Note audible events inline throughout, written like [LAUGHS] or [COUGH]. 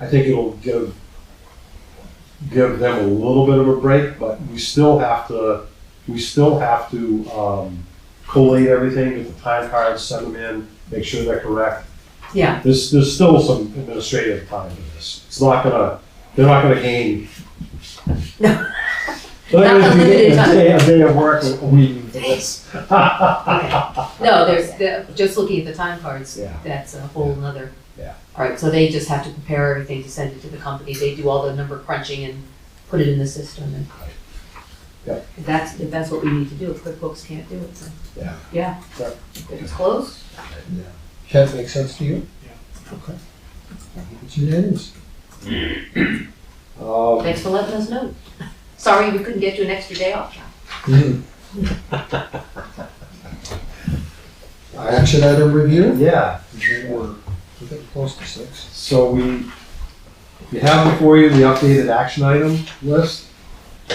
I think it'll give, give them a little bit of a break, but we still have to, we still have to, um, collate everything, get the time cards, send them in, make sure they're correct. Yeah. There's, there's still some administrative time to this. It's not gonna, they're not gonna gain. No. [LAUGHS] They're gonna Not be unlimited getting a time. day- A day of work, a week. for [LAUGHS] this. No, there's, the- just looking at the time cards, [LAUGHS] Yeah. that's a whole nother. Yeah. All right, so they just have to prepare everything to send it to the company, they do all the number crunching and put it in the system and. Yep. If that's, if that's what we need to do, if QuickBooks can't do it, then. Yeah. Yeah. Yep. If It's closed, Does that make sense to you? Yeah. Okay. It's unanimous. Um, thanks for letting us know. [LAUGHS] Sorry we couldn't get you an extra day off, John. I- Action item review? Yeah, We're getting close to six. So we, we have before you the updated action item list.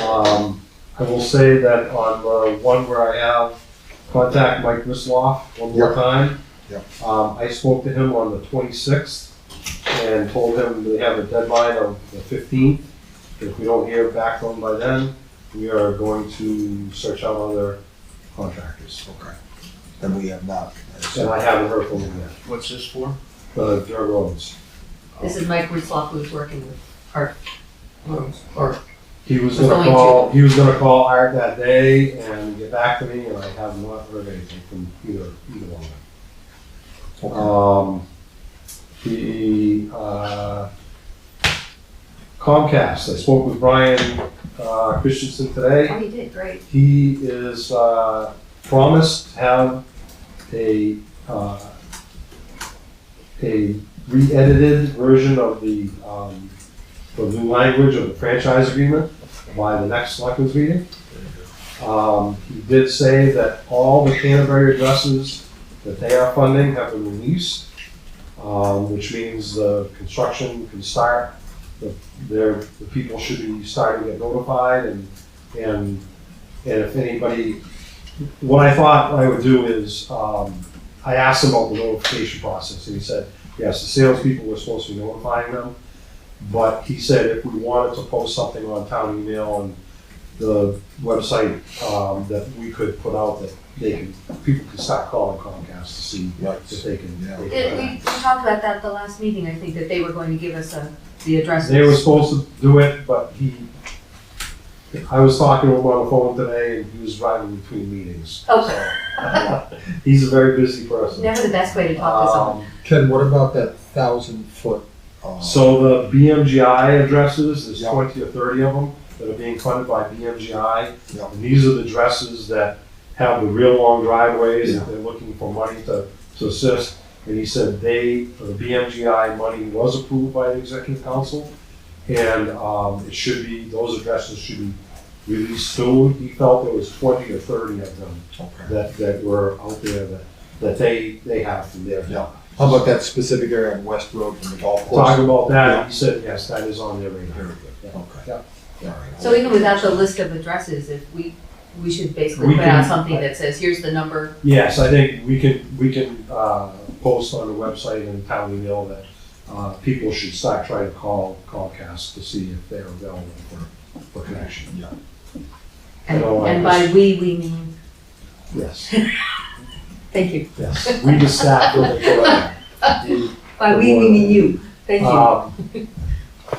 Um, I will say that on the one where I have contact Mike Misloff one more Yep. time. Yep. Um, I spoke to him on the twenty-sixth and told him they have a deadline of the fifteenth. If we don't hear back from him by then, we are going to search out other contractors. Okay. Then we have not. And I haven't heard from him yet, What's this for? the dirt roads. This is Mike Ritzloff who's working with Art, Rooms, or, He was Was gonna going call, he was gonna call Art that day and get back to me, and I have not heard anything from either, either one of them. Um, the, uh, Comcast, I spoke with Brian, uh, Christensen today. oh, he did, great. He is, uh, promised to have a, uh, a re-edited version of the, um, the new language of the franchise agreement by the next selectmen's meeting. Um, he did say that all the Canterbury addresses that they are funding have been released, um, which means the construction can start. The, their, the people should be starting to get notified and, and, and if anybody, what I thought I would do is, um, I asked him about the notification process and he said, yes, the salespeople were supposed to be notifying them. But he said if we wanted to post something on town email and the website, um, that we could put out that they can, people can start calling Comcast to see Right. if they can. Yeah. they Did can- we, we talked about that at the last meeting, I think, that they were going to give us a, the addresses. They were supposed to do it, but he, I was talking to him on the phone today and he was driving between [LAUGHS] meetings. Okay, He's a very busy person. never the best way to talk to someone. Um, Ken, what about that thousand foot? uh, So the BMGI addresses, there's Yeah. twenty or thirty of them that are being funded by BMGI. Yeah. And these are the addresses that have the real long driveways Yeah. that they're looking for money to, to assist. And he said they, the BMGI money was approved by the executive council. And, um, it should be, those addresses should be released soon. He felt there was twenty or thirty of them Okay. that, that were out there that, that they, they have from their. Yeah. How about that specific area on West Road from the golf Talk course? about that, Yeah. he said, yes, that is on their radar. Very Yeah. good. Okay. Yeah. All right. So even without the list of addresses, if we, we should basically We put out can- something that says, here's the number. Yes, I think we can, we can, uh, post on the website and town email that, uh, people should start trying to call Comcast to see if they're available for, for connection. Yeah. I And, don't like and by this. we, we mean, Yes, thank you. yes, we just sat [LAUGHS] with it. By we, we mean you. Thank you. Um,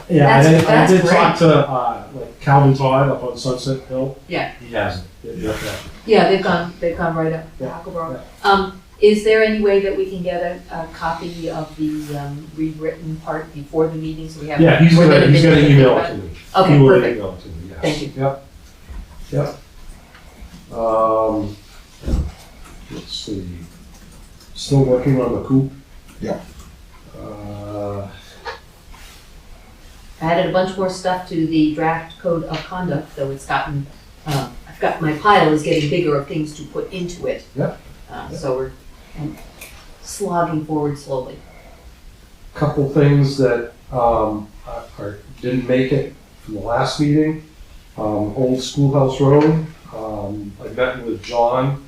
Yeah, I That's- did, I that's did great. talk to, uh, like Calvin Todd up on Sunset Hill. Yeah. He hasn't. Yeah, yeah. Yeah, they've gone, they've gone right up to Yeah, Hackleboro. Um, is there any way that we can get a, a copy of the, um, rewritten part before the meeting, so we have? Yeah, he's we're gonna, he's be gonna thinking email about it to me. it? Okay, He will perfect. email it to me, yes. Thank you. Yep, yep. Um, let's see, still working on the coop? Yeah. Uh, I added a bunch more stuff to the draft code of conduct, though it's gotten, uh, I've got, my pile is getting bigger of things to put into it. Yeah. Uh, so we're um, slogging forward slowly. couple things that, um, are- are, didn't make it from the last meeting. Um, Old Schoolhouse Road, um, I met with John,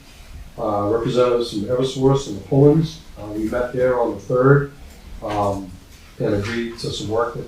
uh, representatives from Eversource and the Pullens. Uh, we met there on the third. Um, and agreed to some work that